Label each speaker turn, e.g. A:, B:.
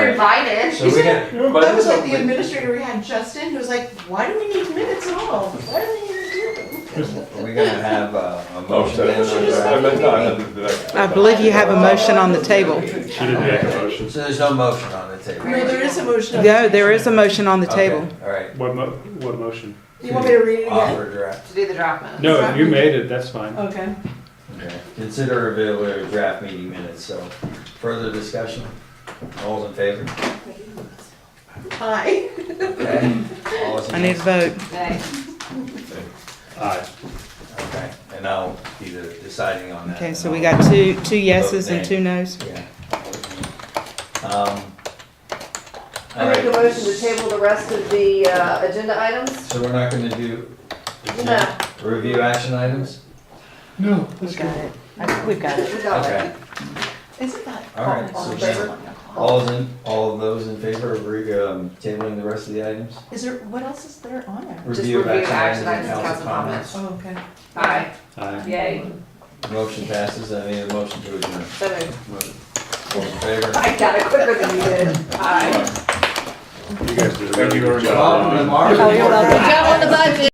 A: divided.
B: So we got,
C: But
A: That was like
C: it's
A: the
C: like-
A: administrator we had, Justin, who was like, why do we need minutes at all? What are we even doing?
B: are we gonna have uh, a
C: Oh,
B: motion
C: so,
B: then? on that?
C: I meant, no, I meant the next.
D: I believe you have a motion on the table.
C: She didn't make a motion.
B: So there's no motion on the table?
A: No, there is a motion. on the
D: No, there
A: table.
D: is a motion on the
B: Okay,
D: table.
B: All right,
E: What mo, what motion?
A: You want me to read it again?
B: offer draft.
A: To do the drop minutes.
E: No, if you made it, that's fine.
A: Okay.
B: Okay. Consider available draft meeting minutes, so further discussion? All's in favor?
A: Hi.
B: Okay. All is
D: I need a
B: against?
D: vote.
E: Aye.
B: Okay, and I'll be the deciding on that.
D: Okay,
B: and
D: so we
B: I'll-
D: got two, two yeses and two nos.
B: Yeah. Um, all
F: I make a
B: right,
F: motion to table the rest of the uh, agenda items.
B: so we're not gonna do
F: No,
B: review action items?
E: No.
A: We got it.
D: We've got it.
F: we got it.
B: Okay,
A: Isn't that?
B: all right,
A: all
B: so
A: in
B: then,
A: favor?
B: all's in, all of those in favor of re, um, tabling the rest of the items?
A: Is there, what else is there on there?
F: Just
B: Review of
F: review
B: action items
F: action
B: and
F: items,
B: council
F: council
B: comments.
A: Oh, okay.
F: Aye,
E: Aye.
F: yay.
B: Motion passes, I need a motion to adjourn.
F: So moved.
B: All in favor?
F: I got it quicker than you did. Aye.
E: You guys did a
C: Thank you
E: very
C: very
E: good job.
B: Bob,
C: much.
B: Marv?
F: Good job on the budget.